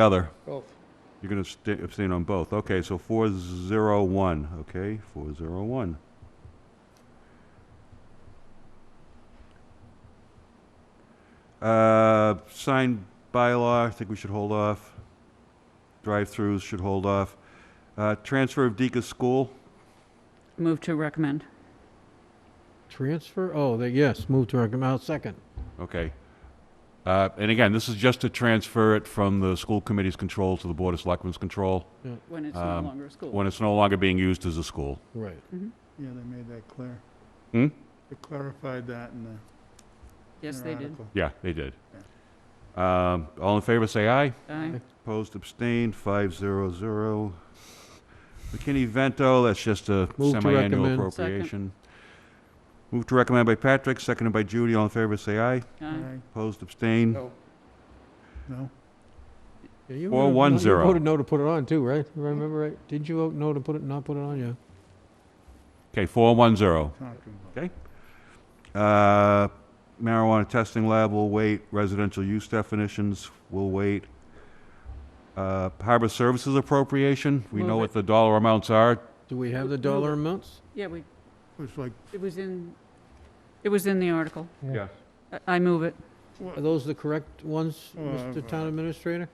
Other, Both. you're going to abstain on both. Okay, so 401, okay, 401. Uh, Sign bylaw, I think we should hold off. Drive-throughs should hold off. Uh, Transfer of Deacon School, Move to recommend. Transfer? Oh, they, yes, move to recommend, I'll second. okay. Uh, And again, this is just to transfer it from the school committee's control to the Board of Selectmen's control When it's no Um, longer a school. Mm-hmm. when it's no longer being used as a school. Right. Yeah, they made that clear. Hmm? They clarified that in the. Yes, in they their did. article. Yeah, they did. Um, All in favor, say aye. Aye. Opposed, abstained, five zero zero. McKinney-Vento, that's just a Move to semi-annual recommend. Second. appropriation. Move to recommend by Patrick, seconded by Judy. All in favor, say aye. Aye. Aye. Opposed, abstained. No. No, Yeah, you Four, voted one, no- zero. You voted no to put it on too, right? If I remember right? Did you vote no to put it, not put it on? Yeah. Okay, four one zero. talking about. Uh, Marijuana testing lab will wait. Residential use definitions will wait. Uh, Harbor services appropriation, we know Move what it. the dollar amounts are. Do we have the No. dollar amounts? Yeah, we, It was like, it was in, it was in the article. Yeah. I- I move it. what- Are those the correct ones, Uh, Mr. Town Administrator?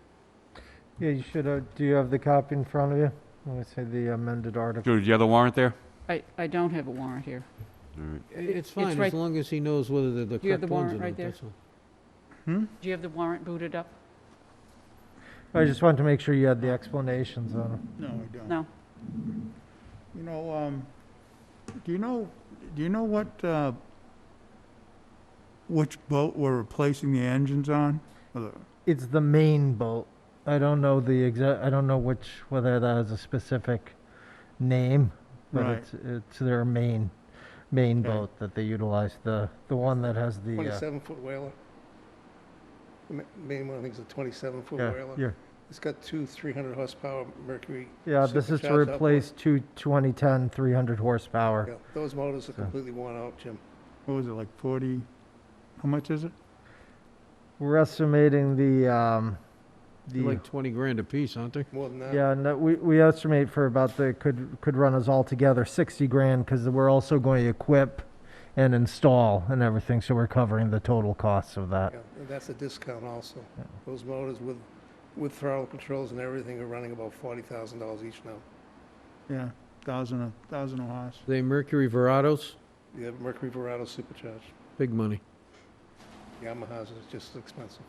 Yeah, you should, uh, do you have the copy in front of you? Let me see the amended article. Judy, do you have the warrant there? I, I don't have a warrant here. All right. I- It's it's fine, as right- long as he knows whether they're the You have correct the ones or warrant right not, there? that's all. hmm? Do you have the warrant booted up? I just wanted to make sure you had the explanations on them. No, I don't. No. You know, um, do you know, do you know what, uh, which boat we're replacing the engines on? Or the- It's the main boat. I don't know the exact, I don't know which, whether that has a specific name, but Right. it's, it's their main, main Okay. boat that they utilize, the, the one that has the. uh, Twenty-seven foot whaler. The ma- Main one, I think, is a twenty-seven foot yeah, whaler. yeah. It's got two three hundred horsepower Mercury. Yeah, this is to supercharged outboard. replace two 2010 300 horsepower. Yeah, Those motors are So- completely worn out, Jim. What was it, like forty, how much is it? We're estimating the, um, They're the like 20 grand apiece, aren't they? More than that. Yeah, and that we, we estimate for about the, could, could run us all together sixty grand, because we're also going to equip and install and everything, so we're covering the total costs of that. Yeah, and that's a discount also. Yeah. Those motors with, with throttle controls and everything are running about forty thousand dollars each now. Yeah, thousand, a thousand a horse. They Mercury Verados, The Mercury Verado supercharged. big money. Yamaha's is just as expensive.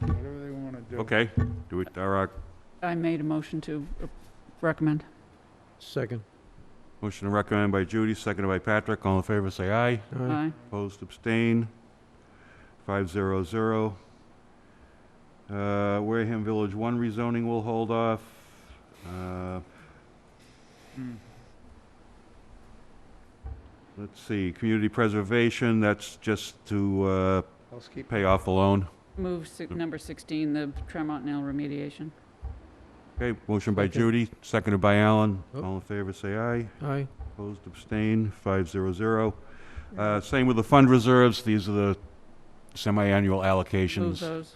Whatever they wanna do. Okay, do it, All right. I made a motion to uh, recommend. Second. Motion to recommend by Judy, seconded by Patrick. All in favor, say aye. All right. Aye. Opposed, abstain. Five zero zero. Uh, Wareham Village One rezoning will hold off. Uh, Hmm. let's see, community preservation, that's just to, uh, Housekeeping, pay off the loan. Move si- number 16, the Tremont Nail remediation. Okay, motion by Second. Judy, seconded by Alan. Oh. All in favor, say aye. Aye. Opposed, abstain, five zero zero. Uh, same with the fund reserves. These are the semi-annual Move allocations. those.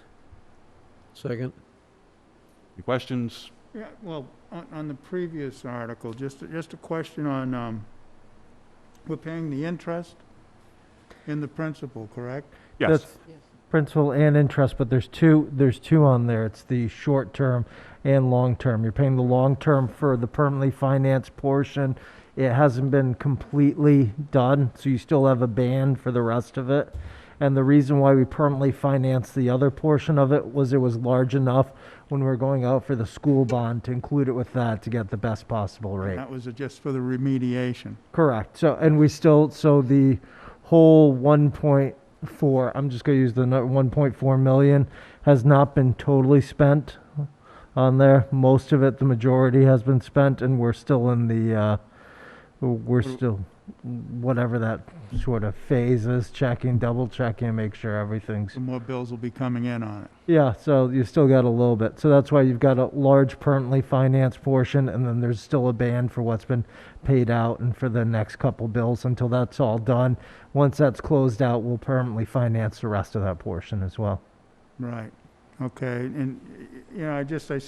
Second. Any questions? Yeah, well, on, on the previous article, just, just a question on, um, we're paying the interest in the principal, correct? Yes. That's Yes. Principal and interest, but there's two, there's two on there, it's the short-term and long-term. You're paying the long-term for the permanently financed portion. It hasn't been completely done, so you still have a band for the rest of it. And the reason why we permanently financed the other portion of it was it was large enough when we were going out for the school bond to include it with that to get the best possible rate. That was just for the remediation. Correct. So, and we still, so the whole one point four, I'm just gonna use the nu- one point four million, has not been totally spent on there. Most of it, the majority has been spent and we're still in the, uh, we're do- still, whatever that sort of phase is, checking, double checking, make sure everything's. So more bills will be coming in on it. Yeah, so you still got a little bit. So that's why you've got a large permanently financed portion, and then there's still a band for what's been paid out and for the next couple bills until that's all done. Once that's closed out, we'll permanently finance the rest of that portion as well. Right, Okay, and, you know, I just, I